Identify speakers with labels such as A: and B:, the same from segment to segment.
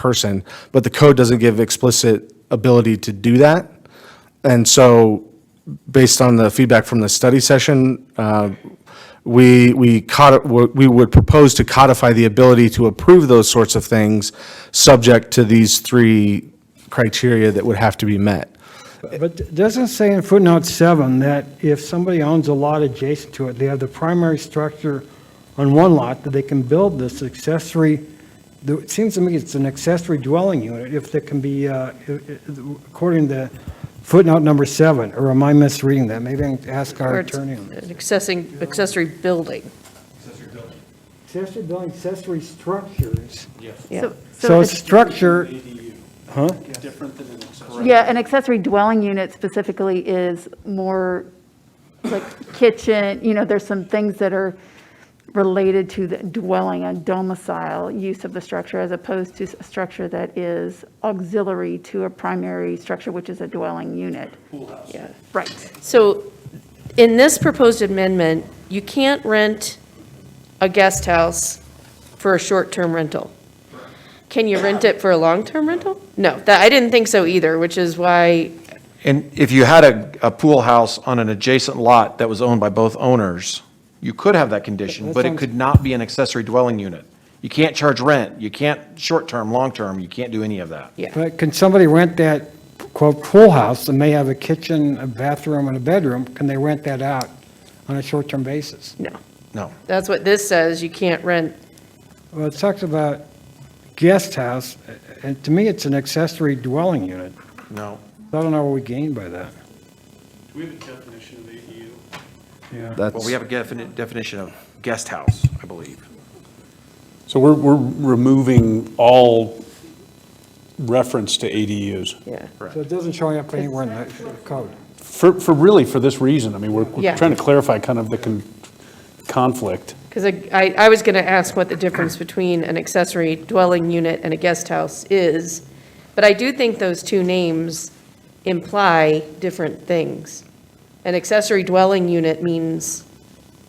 A: person, but the code doesn't give explicit ability to do that. And so, based on the feedback from the study session, uh, we, we codi- we would propose to codify the ability to approve those sorts of things, subject to these three criteria that would have to be met.
B: But it doesn't say in footnote seven that if somebody owns a lot adjacent to it, they have the primary structure on one lot, that they can build this accessory, the- it seems to me it's an accessory dwelling unit, if there can be, uh, i- i- according to footnote number seven, or am I misreading that? Maybe I can ask our
C: Or it's
B: attorney. on that.
C: an accessing, accessory building.
B: Accessory dwelling, accessory structures.
C: Yeah.
B: So structure,
D: Yeah, an accessory dwelling unit specifically is more like kitchen, you know, there's some things that are related to the dwelling and domicile use of the structure as opposed to a structure that is auxiliary to a primary structure, which is a dwelling unit.
C: Yeah.
D: Right.
C: So in this proposed amendment, you can't rent a guest house for a short-term rental. Can you rent it for a long-term rental? No, that, I didn't think so either, which is why,
E: And if you had a, a pool house on an adjacent lot that was owned by both owners, you could have that condition,
B: That
E: but it
B: sounds-
E: could not be an accessory dwelling unit. You can't charge rent, you can't short-term, long-term, you can't do any of that.
C: yeah.
B: But can somebody rent that quote pool house that may have a kitchen, a bathroom, and a bedroom? Can they rent that out on a short-term basis?
C: No.
E: No.
C: That's what this says, you can't rent,
B: Well, it talks about guest house, and to me, it's an accessory dwelling unit.
E: No.
B: I don't know what we gain by that.
F: Do we have a E definition of ADU?
E: Well, we have a definite definition of guest house, I believe.
G: So we're, we're removing all reference to ADUs
C: yeah.
B: So it doesn't show up anywhere in the code.
G: for, for really, for this reason. I mean, we're, we're
C: Yeah.
G: trying to clarify kind of the con- conflict.
C: Because I, I was going to ask what the difference between an accessory dwelling unit and a guest house is, but I do think those two names imply different things. An accessory dwelling unit means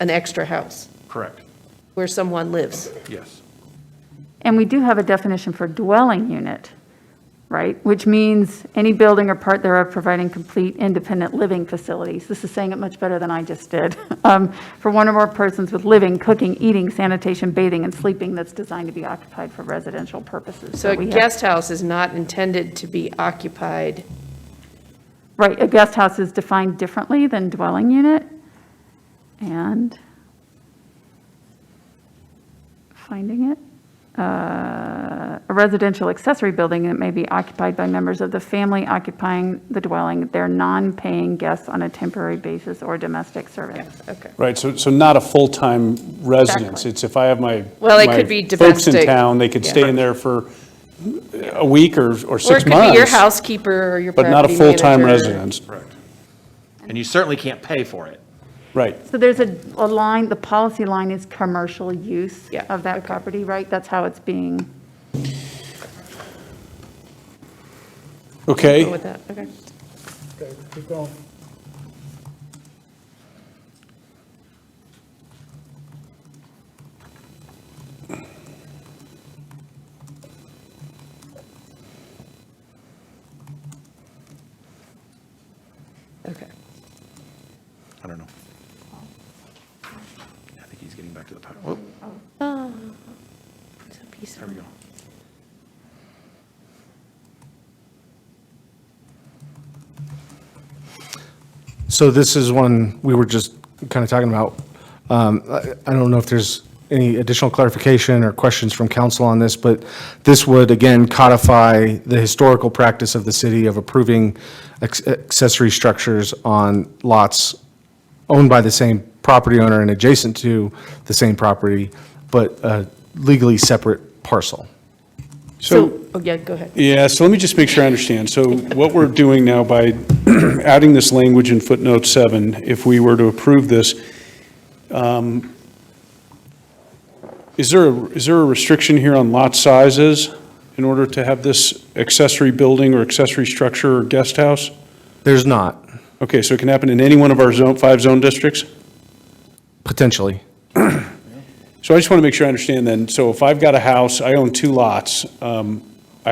C: an extra house
E: Correct,
C: where someone lives.
E: yes.
D: And we do have a definition for dwelling unit, right? Which means any building or part thereof providing complete independent living facilities. This is saying it much better than I just did. Um, For one or more persons with living, cooking, eating, sanitation, bathing, and sleeping that's designed to be occupied for residential purposes.
C: So a
D: we have-
C: guest house is not intended to be occupied.
D: Right, a guest house is defined differently than dwelling unit. And finding it. Uh, A residential accessory building that may be occupied by members of the family occupying the dwelling, they're non-paying guests on a temporary basis or domestic Uh, servants.
C: Okay.
G: Right, so, so not a full-time residence.
D: Exactly.
G: It's if I have my.
C: Well, it
G: my
C: could be
G: Folks in
C: domestic.
G: town, they could
C: Yeah.
G: stay in there for a week or, or
C: Or it
G: six months.
C: could be your housekeeper or your
G: But
C: property
G: not a full-time
C: manager.
G: residence.
E: And you certainly can't pay for it.
G: Right.
D: So there's a, a line, the policy line is commercial use
C: Yeah,
D: of that
C: okay.
D: property, right? That's how it's being,
G: Okay.
C: Go with that, okay. Okay.
E: I don't know. I think he's getting back to the power. Whoop,
B: Oh.
C: It's a piece
E: there
C: of-
E: we go.
A: So this is one we were just kind of talking about. Um, I I don't know if there's any additional clarification or questions from council on this, but this would, again, codify the historical practice of the city of approving acc- accessory structures on lots owned by the same property owner and adjacent to the same property, but uh, legally separate parcel.
G: So,
C: Oh, yeah, go ahead.
G: Yeah, so let me just make sure I understand. So what we're doing now by adding this language in footnote seven, if we were to approve this, um, is there, a- is there a restriction here on lot sizes in order to have this accessory building or accessory structure or guest house?
A: There's not,
G: Okay, so it can happen in any one of our zone, five zone districts?
A: potentially.
G: So I just want to make sure I understand then, so if I've got a house, I own two lots, um,